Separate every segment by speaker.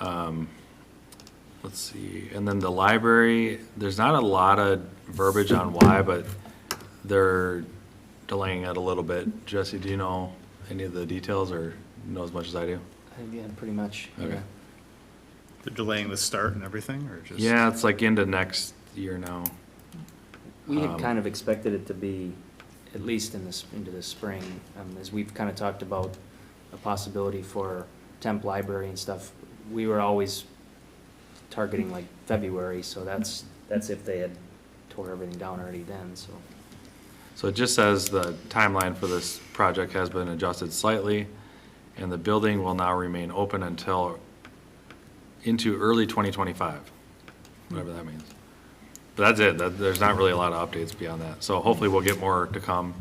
Speaker 1: um, let's see, and then the library, there's not a lot of verbiage on why, but they're delaying it a little bit. Jesse, do you know any of the details or know as much as I do?
Speaker 2: Yeah, pretty much.
Speaker 1: Okay.
Speaker 2: yeah.
Speaker 3: They're delaying the start and everything, or just?
Speaker 1: Yeah, it's like into next year now.
Speaker 2: We had
Speaker 1: Um,
Speaker 2: kind of expected it to be at least in this, into the spring, um, as we've kind of talked about a possibility for temp library and stuff. We were always targeting like February, so that's, that's if they had tore everything down already then, so.
Speaker 1: So it just says the timeline for this project has been adjusted slightly, and the building will now remain open until, into early 2025, whatever that means. But that's it, that, there's not really a lot of updates beyond that. So hopefully we'll get more to come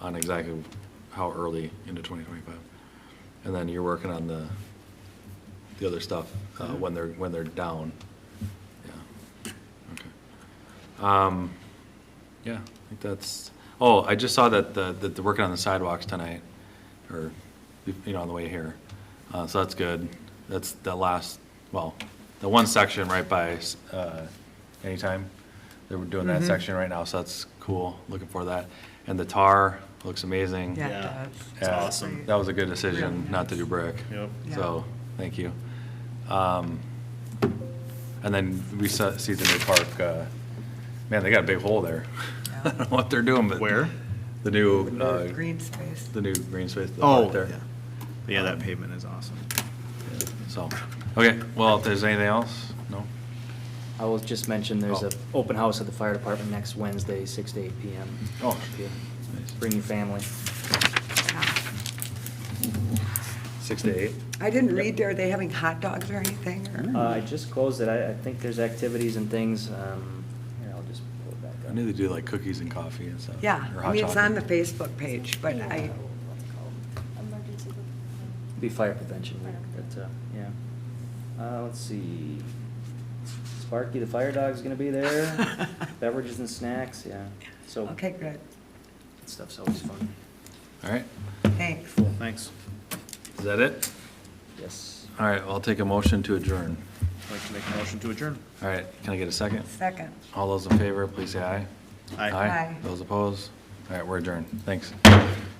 Speaker 1: on exactly how early into 2025. And then you're working on the, the other stuff, uh, when they're, when they're down. Yeah, okay. Um, yeah, I think that's, oh, I just saw that, the- that they're working on the sidewalks tonight, or, you know, on the way here. Uh, so that's good. That's the last, well, the one section right by, uh, Anytime. They're doing that section right now, so that's cool. Looking for that. And the tar looks amazing.
Speaker 4: Yeah,
Speaker 3: Yeah.
Speaker 4: it does.
Speaker 3: It's
Speaker 1: Yeah,
Speaker 3: awesome.
Speaker 1: That was a good decision, not to do brick.
Speaker 3: Yep.
Speaker 1: So, thank you. Um, And then we saw, see the new park, uh, man, they got a big hole there. I don't know what they're doing, but.
Speaker 3: Where?
Speaker 1: The new,
Speaker 4: With
Speaker 1: uh,
Speaker 4: the Green space.
Speaker 1: the new green space. the
Speaker 3: Oh,
Speaker 1: park
Speaker 3: yeah. Um,
Speaker 1: there.
Speaker 3: Yeah, that pavement is awesome.
Speaker 1: So, okay, well, if there's anything else, no?
Speaker 2: I will just mention there's
Speaker 1: Oh.
Speaker 2: a open house at the fire department next Wednesday, six to eight PM.
Speaker 1: Oh.
Speaker 2: If you
Speaker 1: Nice.
Speaker 2: Bring your family.
Speaker 4: Yeah.
Speaker 1: Six to eight?
Speaker 4: I didn't read, are they having hot dogs or anything?
Speaker 2: Uh,
Speaker 4: or-
Speaker 2: I just closed it. I, I think there's activities and things, um, here, I'll just pull it back up.
Speaker 1: I knew they do like cookies and coffee and stuff.
Speaker 4: Yeah,
Speaker 1: or
Speaker 4: I
Speaker 1: hot
Speaker 4: mean, it's on the
Speaker 1: chocolate.
Speaker 4: Facebook page, but I,
Speaker 5: Emergency.
Speaker 2: Um, Be fire prevention,
Speaker 5: Fire
Speaker 2: but, uh, yeah. Uh, let's see. Sparky the fire dog's gonna be there, beverages and snacks, yeah, so.
Speaker 4: okay, good,
Speaker 2: that Stuff's always fun,
Speaker 1: All right,
Speaker 4: thanks.
Speaker 3: Thanks.
Speaker 1: is that it?
Speaker 2: yes.
Speaker 1: All right, I'll take a motion to adjourn.
Speaker 3: I'd like to make a motion to adjourn.
Speaker 1: All right, can I get a second?
Speaker 4: Second.
Speaker 1: All those in favor, please say aye.
Speaker 3: Aye.
Speaker 4: Aye.
Speaker 1: Those opposed? All right, we're adjourned. Thanks.